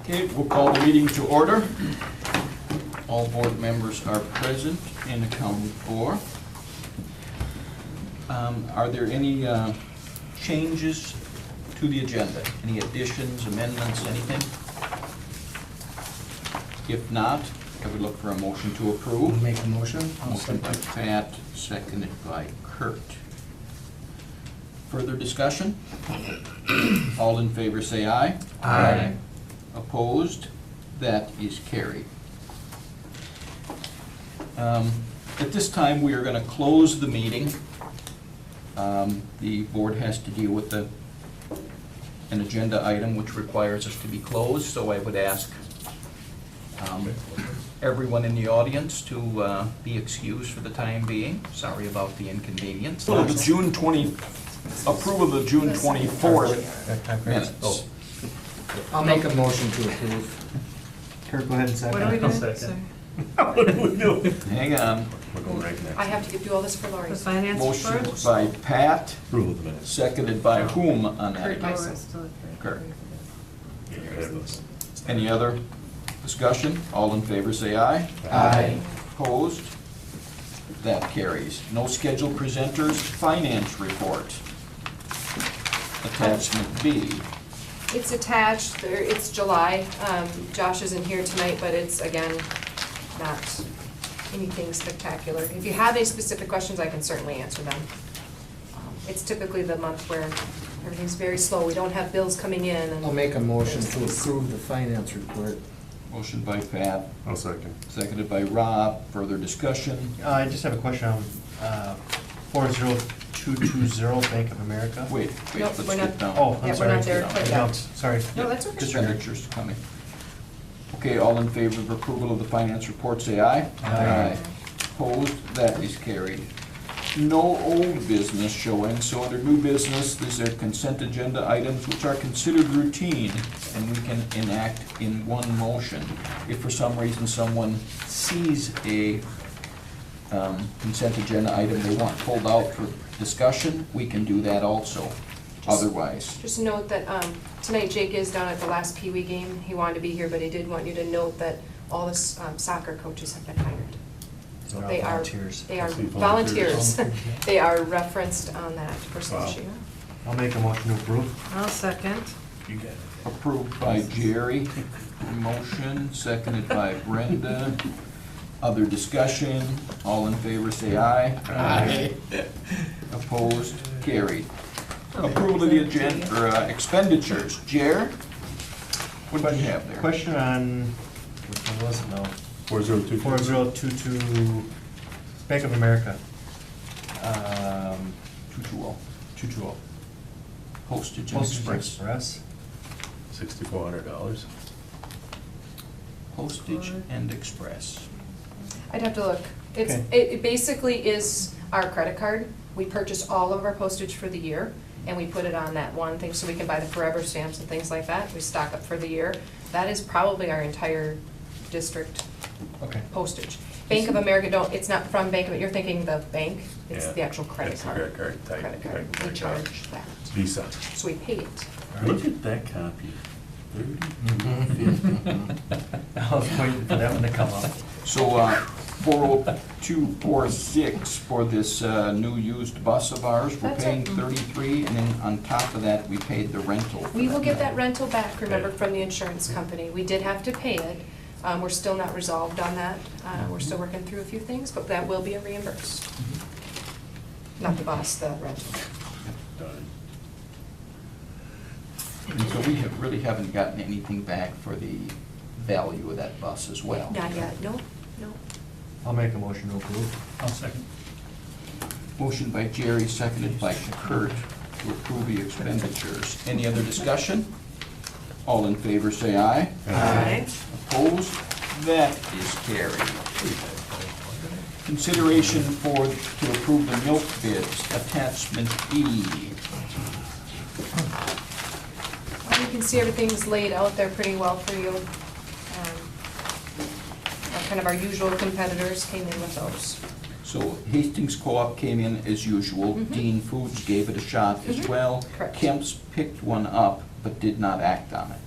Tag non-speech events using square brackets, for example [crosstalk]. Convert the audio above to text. Okay, we'll call the meeting to order. All board members are present and accounted for. Um, Are there any uh, changes to the agenda? Any additions, amendments, anything? If not, I would look for a motion to approve. Make a motion? Motion by Pat, seconded by Kurt. Further discussion? All in favor, say aye. Aye. Opposed? That is carried. Um, At this time, we are going to close the meeting. Um, The board has to deal with the, an agenda item which requires us to be closed, so I would ask um, everyone in the audience to uh, be excused for the time being. Sorry about the inconvenience. Approval of the June 20, approval of the June 24th. Minutes. I'll make a motion to approve. Kirk, go ahead and second. What are we I'll doing? second. Sorry. Hang on. We're going right I next. have to give you all this for Lori. The finance Motion report? by Pat, Approval of the minutes. seconded by whom on Kurt. that? by- Oh, we're still at Kurt. You're ahead of us. Any other discussion? All in favor, say aye. Aye. Opposed? That carries. No scheduled presenters, finance report. Attachment B. It's attached, there, it's July. Um, Josh isn't here tonight, but it's, again, not anything spectacular. If you have any specific questions, I can certainly answer them. Um, It's typically the month where everything's very slow, we don't have bills coming in and. I'll make a motion to approve the finance report. Motion by Pat, I'll second. seconded by Rob. Further discussion? Uh, I just have a question on uh, 40220 Bank of America. Wait, wait, Nope, let's we're get not- down. Oh, Yeah, I'm we're sorry. not there quite yet. No, Sorry. No, that's okay. Expenditures coming. Okay, all in favor of approval of the finance report, say aye. Aye. Opposed, that is carried. No old business showing, so under new business, these are consent agenda items which are considered routine and we can enact in one motion. If for some reason someone sees a um, consent agenda item they want pulled out for discussion, we can do that also. Otherwise, Just note that um, tonight Jake is down at the last Pee Wee game. He wanted to be here, but he did want you to note that all the s- um, soccer coaches have been hired. They're all They are- volunteers. They are I see volunteers. volunteers. They are referenced on that person's Wow. sheet. I'll make a motion to approve. I'll second. You got it. Approved by Jerry, motion, seconded by Brenda. Other discussion, all in favor, say aye. Aye. Opposed, carried. Approval of the agenda, or uh, expenditures, Jer, what do you have there? Question on, which one was it now? Four zero two. 4022 Bank of America. Um, 220, 220. oh. postage and Postage express. Express. Sixty-four hundred dollars. Postage and express. I'd have to look. It's, it Okay. it basically is our credit card. We purchase all of our postage for the year, and we put it on that one thing, so we can buy the forever stamps and things like that. We stock up for the year. That is probably our entire district Okay. [laughs] postage. Bank of America don't, it's not from Bank of, you're thinking the bank, it's Yeah. the actual credit It's the card. credit card type- Credit type card. of we credit card. charge that, Visa. so we pay it. Look at that copy. Mm. I was waiting for that one to come up. So, uh, 40246 for this uh, new used bus of ours, we're That's paying it. Mm-hmm. 33, and then on top of that, we paid the rental. for We will get that now. rental back, remember, Okay. from the insurance company. We did have to pay it. Um, We're still not resolved on that. Uh, We're still working through a few things, but that will be reimbursed. Not the bus, the rental. Done. And so we have, really haven't gotten anything back for the value of that bus as well. Not yet, no, no. I'll make a motion to approve. I'll second. Motion by Jerry, seconded by Kurt to approve the expenditures. Any other discussion? All in favor, say aye. Aye. Opposed? That is carried. Consideration for, to approve the milk bids, attachment E. Well, You can see everything's laid out there pretty well for you. Um, our- Kind of our usual competitors came in with those. So Hastings Co-op came in as usual. Mhm. Dean Foods gave it a shot as Mhm. well. Correct. Kemp's picked one up, but did not act on it.